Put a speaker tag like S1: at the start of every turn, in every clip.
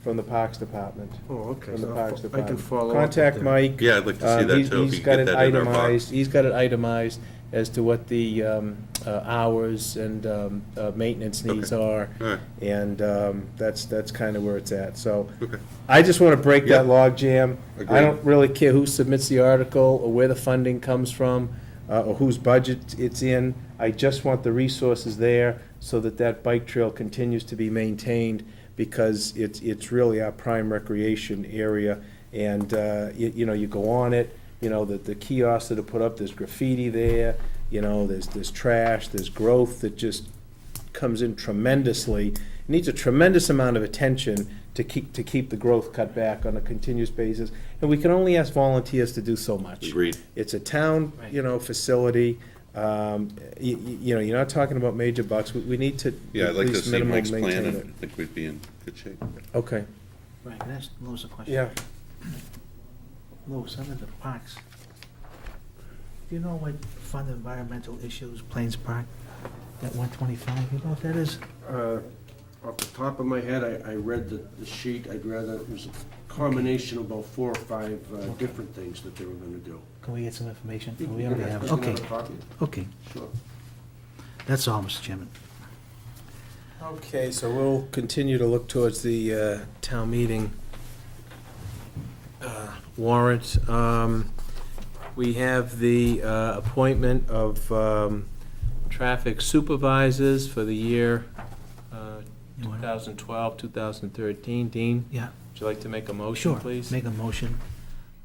S1: from the Parks Department.
S2: Oh, okay,
S1: From the
S2: so
S1: Parks
S2: I'll fo- I
S1: Department.
S2: can follow up. with
S1: Contact
S2: them.
S1: Mike.
S3: Yeah, I'd like to see
S1: Um,
S3: that
S1: he's-
S3: too, if
S1: he's
S3: you could
S1: got
S3: get
S1: it
S3: that in our file.
S1: itemized- He's got it itemized as to what the um, uh, hours and um, uh, maintenance needs
S3: Okay.
S1: are.
S3: All right.
S1: And um, that's, that's kind of where it's at. So
S3: Okay.
S1: I just want to break that
S3: Yeah.
S1: logjam. I
S3: Agreed.
S1: don't really care who submits the article or where the funding comes from uh, or whose budget it's in. I just want the resources there so that that bike trail continues to be maintained because it's, it's really our prime recreation area. And, uh, you, you know, you go on it, you know, the, the kiosks that are put up, there's graffiti there, you know, there's, there's trash, there's growth that just comes in tremendously, needs a tremendous amount of attention to keep, to keep the growth cut back on a continuous basis. And we can only ask volunteers to do so much.
S3: Agreed.
S1: It's a town, you know, facility, um, you, you know, you're not talking about major bucks, we, we need to
S3: Yeah, I'd
S1: at
S3: like to
S1: least
S3: see
S1: minimal
S3: Mike's
S1: maintain
S3: plan, and
S1: it.
S3: I think we'd be in good shape.
S1: Okay,
S4: Right, can I ask Louis a question?
S1: yeah,
S4: Louis, under the parks, do you know what Fund Environmental Issues, Plains Park, that one twenty-five, you know what that is?
S2: Uh, Off the top of my head, I, I read the, the sheet, I'd rather, it was a combination of about four or five uh, different things that they were gonna do.
S4: Can we get some information? Oh, We already have it,
S2: Another
S4: okay,
S2: copy?
S4: okay,
S2: Sure.
S4: that's all, Mr. Chairman.
S1: okay, so we'll continue to look towards the, uh, town meeting uh, warrant. Um, we have the, uh, appointment of, um, traffic supervisors for the year, uh,
S4: You wanna-
S1: 2012, 2013. Dean,
S4: Yeah,
S1: would you like to make a motion,
S4: sure,
S1: please?
S4: make a motion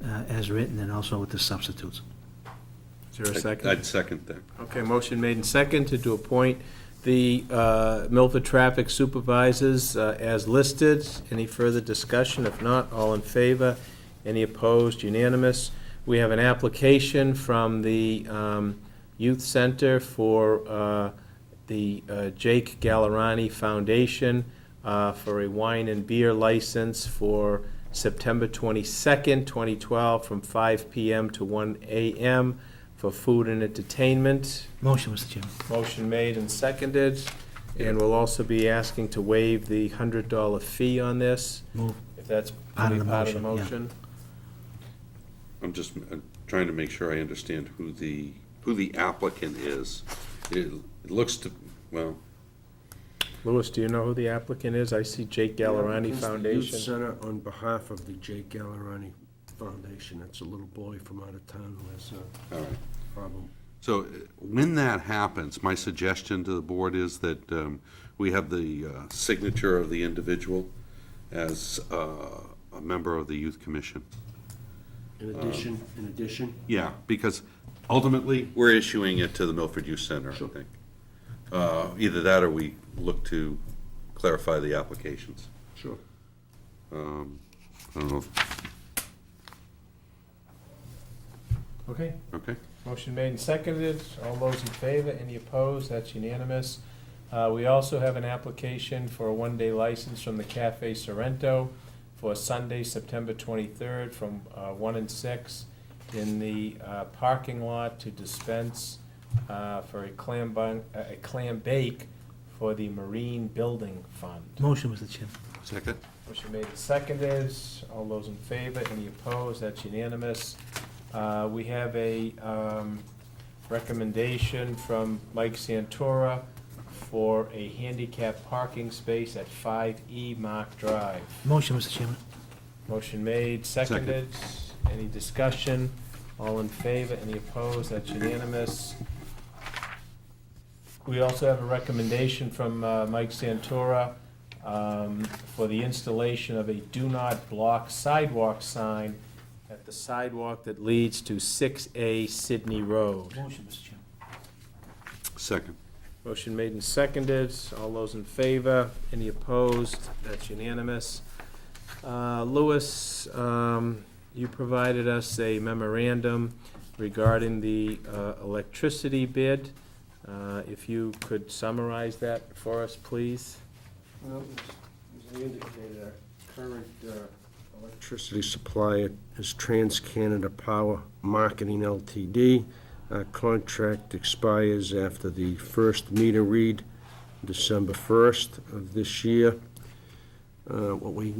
S4: uh, as written and also with the substitutes.
S1: Is there a
S3: I'd-
S1: second?
S3: I'd second that.
S1: Okay, motion made and seconded to appoint the uh, Milford Traffic Supervisors uh, as listed. Any further discussion? If not, all in favor? Any opposed? Unanimous. We have an application from the um, Youth Center for uh, the uh, Jake Gallerani Foundation uh, for a wine and beer license for September 22nd, 2012, from 5 PM to 1 AM for food and entertainment.
S4: Motion, Mr. Chairman.
S1: Motion made and seconded, and we'll also be asking to waive the $100 fee on this,
S4: Move.
S1: if that's
S4: Part of the
S1: part of the
S4: motion,
S1: motion.
S3: I'm just uh, trying to make sure I understand who the, who the applicant is. It it looks to, well,
S1: Louis, do you know who the applicant is? I see Jake Gallerani
S2: Against the Youth
S1: Foundation.
S2: Center on behalf of the Jake Gallerani Foundation, that's a little boy from out of town who has a
S3: all right.
S2: problem.
S3: So uh, when that happens, my suggestion to the board is that um, we have the uh, signature of the individual as uh, a member of the youth commission.
S2: In addition, in addition,
S3: Yeah, because ultimately, we're issuing it to the Milford Youth Center, I
S2: Sure.
S3: think. Uh, Either that or we look to clarify the applications. Um,
S2: sure.
S3: I don't know,
S1: Okay.
S3: okay?
S1: Motion made and seconded. All those in favor, any opposed? That's unanimous. Uh, We also have an application for a one-day license from the Cafe Sorrento for Sunday, September 23rd, from uh, 1 and 6 in the uh, parking lot to dispense uh, for a clam bun, a clam bake for the Marine Building Fund.
S4: Motion, Mr. Chairman.
S3: Second?
S1: Motion made and seconded. All those in favor, any opposed? That's unanimous. Uh, We have a um, recommendation from Mike Santora for a handicap parking space at 5E Mark Drive.
S4: Motion, Mr. Chairman.
S1: Motion made, seconded. Any discussion? All in favor? Any opposed? That's unanimous. We also have a recommendation from uh, Mike Santora um, for the installation of a do not block sidewalk sign at the sidewalk that leads to 6A Sydney Road.
S4: Motion, Mr. Chairman.
S3: Second.
S1: Motion made and seconded. All those in favor? Any opposed? That's unanimous. Uh, Louis, um, you provided us a memorandum regarding the uh, electricity bid. Uh, If you could summarize that for us, please.
S2: Well, as I indicated, our current uh, electricity supplier is TransCanada Power Marketing LTD. Our contract expires after the first meter read, December 1st of this year. Uh, What we